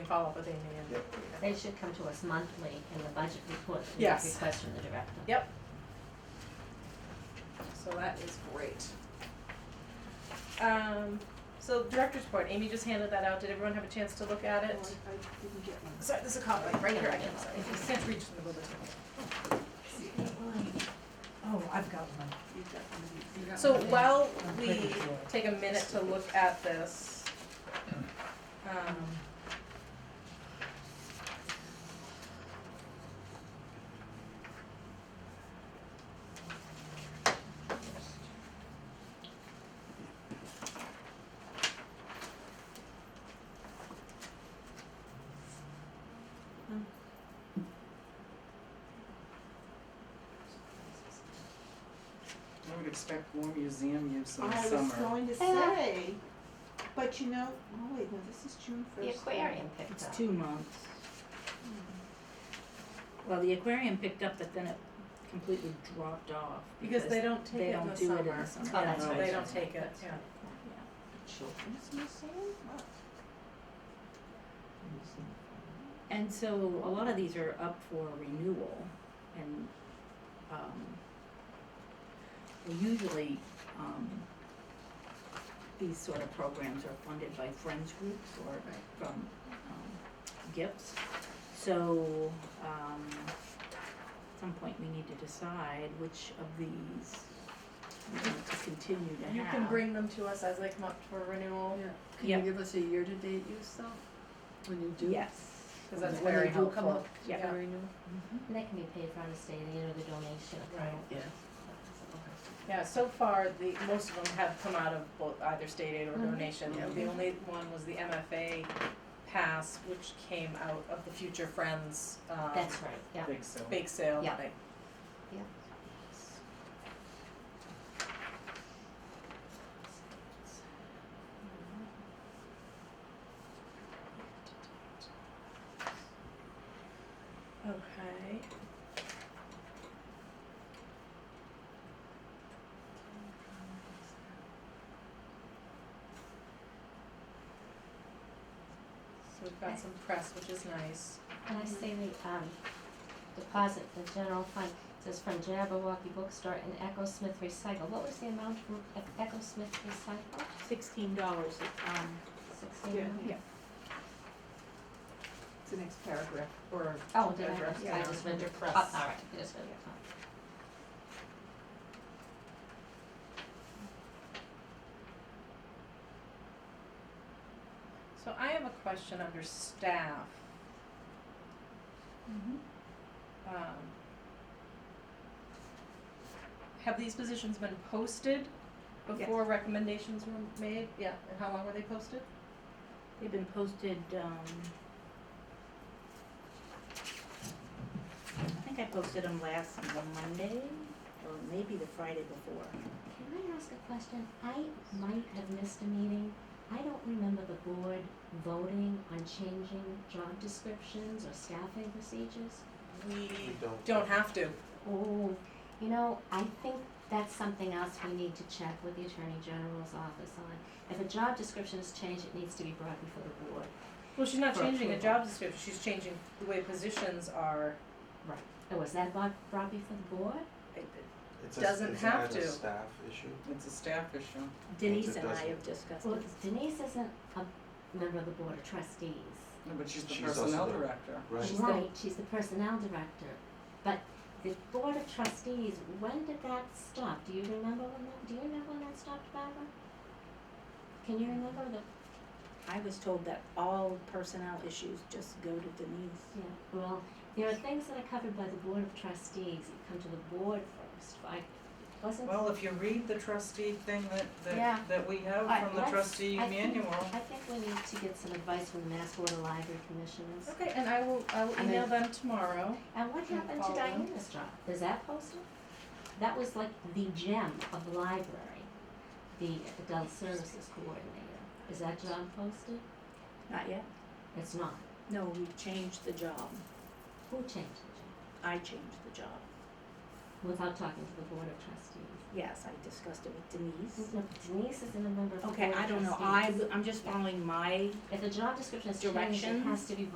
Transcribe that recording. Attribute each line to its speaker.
Speaker 1: follow up with Amy and.
Speaker 2: Yep.
Speaker 3: They should come to us monthly in the budget report to make
Speaker 1: Yes.
Speaker 3: requests from the director.
Speaker 1: Yep. So that is great. Um, so director's report, Amy just handed that out, did everyone have a chance to look at
Speaker 4: I
Speaker 1: it?
Speaker 4: didn't get one.
Speaker 1: Sorry, this is a copy, right here, I can, sorry, I can't reach from the middle of the table.
Speaker 5: Oh, I've got one.
Speaker 4: You got one of these.
Speaker 1: So
Speaker 5: Okay.
Speaker 1: while
Speaker 5: I'm
Speaker 1: we
Speaker 5: pretty sure.
Speaker 1: take a minute to look at this, um,
Speaker 6: I would expect more museum use in the
Speaker 4: I was
Speaker 6: summer.
Speaker 4: going to say, but you know, oh wait, no, this is June
Speaker 3: The
Speaker 4: first.
Speaker 3: aquarium picked
Speaker 7: It's
Speaker 3: up.
Speaker 7: two months. Well, the aquarium picked up, but then it completely dropped off.
Speaker 1: because they don't take
Speaker 7: they
Speaker 1: it in
Speaker 7: don't
Speaker 1: the
Speaker 7: do
Speaker 1: summer.
Speaker 7: it in the summer.
Speaker 3: Oh, that's
Speaker 1: Yeah,
Speaker 3: right.
Speaker 1: they don't take it, yeah.
Speaker 4: Children's Museum? Wow.
Speaker 7: And so a lot of these are up for renewal and, um, well, usually, um, these sort of programs are funded by friends groups or from, um, gifts. So, um, at some point we need to decide which of these we want to continue to have.
Speaker 1: You can bring them to us as they come up for renewal,
Speaker 5: Yeah, can
Speaker 7: Yeah.
Speaker 5: you give us a year-to-date use though, when you do?
Speaker 7: Yes.
Speaker 1: cause that's
Speaker 5: When they
Speaker 1: very
Speaker 5: do come
Speaker 1: helpful,
Speaker 5: up.
Speaker 1: yeah.
Speaker 5: The renewal?
Speaker 3: And that can be paid for on the state aid or the donation account.
Speaker 5: Yeah.
Speaker 1: Yeah, so far, the, most of them have come out of both either state aid or donation.
Speaker 5: Yeah.
Speaker 1: The only one was the MFA pass, which came out of the Future Friends, um,
Speaker 3: That's right, yeah.
Speaker 6: I think so.
Speaker 1: bake sale
Speaker 3: Yeah.
Speaker 1: thing.
Speaker 3: Yeah.
Speaker 1: Okay. So we've got some press, which is nice.
Speaker 3: And I say the, um, deposit, the general fund, says from Jabberwocky Bookstore and Echo Smith Recycle. What was the amount from E- Echo Smith Recycle?
Speaker 7: Sixteen dollars, um,
Speaker 3: Sixteen?
Speaker 4: Yeah.
Speaker 3: million?
Speaker 7: Yeah.
Speaker 4: It's the next paragraph, or.
Speaker 3: Oh, did
Speaker 4: paragraph.
Speaker 3: I, I just read your press. Oh, all right, I just read your press.
Speaker 1: So I have a question under staff. Mm-hmm. Um, Have these positions been posted before recommendations were made? Yeah, and how long were they posted?
Speaker 7: they've been posted, um, I think I posted them last Monday, or maybe the Friday before.
Speaker 3: Can I ask a question? I might have missed a meeting. I don't remember the board voting on changing job descriptions or staffing procedures.
Speaker 1: We
Speaker 2: We don't.
Speaker 1: don't have to.
Speaker 3: Oh, you know, I think that's something else we need to check with the Attorney General's office on. If a job description is changed, it needs to be brought before the board.
Speaker 1: Well, she's not
Speaker 3: For
Speaker 1: changing a
Speaker 3: approval.
Speaker 1: job description, she's changing the way positions are.
Speaker 3: Oh, was that brought, brought before the board?
Speaker 2: It's a-
Speaker 1: Doesn't
Speaker 2: it's an
Speaker 1: have
Speaker 2: as a
Speaker 1: to.
Speaker 2: staff issue.
Speaker 6: It's a staff issue.
Speaker 7: Denise
Speaker 2: It
Speaker 7: and I
Speaker 2: doesn't.
Speaker 7: have discussed
Speaker 3: Well,
Speaker 7: this.
Speaker 3: Denise isn't a member of the Board of Trustees.
Speaker 6: No, but she's the
Speaker 2: She's also
Speaker 6: personnel
Speaker 2: the-
Speaker 6: director.
Speaker 2: Right.
Speaker 1: She's the-
Speaker 3: Right, she's the personnel director, but the board of trustees, when did that stop? Do you remember when that, do you remember when that stopped, Barbara? Can you remember the,
Speaker 7: I was told that all personnel issues just go to Denise.
Speaker 3: yeah, well, there are things that are covered by the board of trustees, that come to the board first, I, wasn't.
Speaker 6: Well, if you read the trustee thing that,
Speaker 3: Yeah.
Speaker 6: that, that we have
Speaker 3: Alright,
Speaker 6: from the
Speaker 3: let's-
Speaker 6: trustee
Speaker 3: I think-
Speaker 6: manual,
Speaker 3: I think we need to get some advice from the Mass Board of Library Commissioners.
Speaker 1: Okay, and I will, I will
Speaker 3: And
Speaker 1: email
Speaker 3: then-
Speaker 1: them tomorrow.
Speaker 3: And what
Speaker 1: Can you
Speaker 3: happened to
Speaker 1: follow them?
Speaker 3: Diana's job? Is that posted? That was like the gem of the library, the adult services coordinator. Is that job posted?
Speaker 7: Not yet?
Speaker 3: It's not.
Speaker 7: No, we changed the job.
Speaker 3: Who changed the
Speaker 7: I changed the job.
Speaker 3: job without talking to the board of trustees?
Speaker 7: yes, I discussed it with Denise.
Speaker 3: No, Denise isn't a
Speaker 7: Mm-hmm.
Speaker 3: member of the board
Speaker 7: Okay, I don't know,
Speaker 3: of
Speaker 7: I,
Speaker 3: trustees.
Speaker 7: I'm just following my
Speaker 3: If the job description is changed, it
Speaker 7: Directions?
Speaker 3: has to be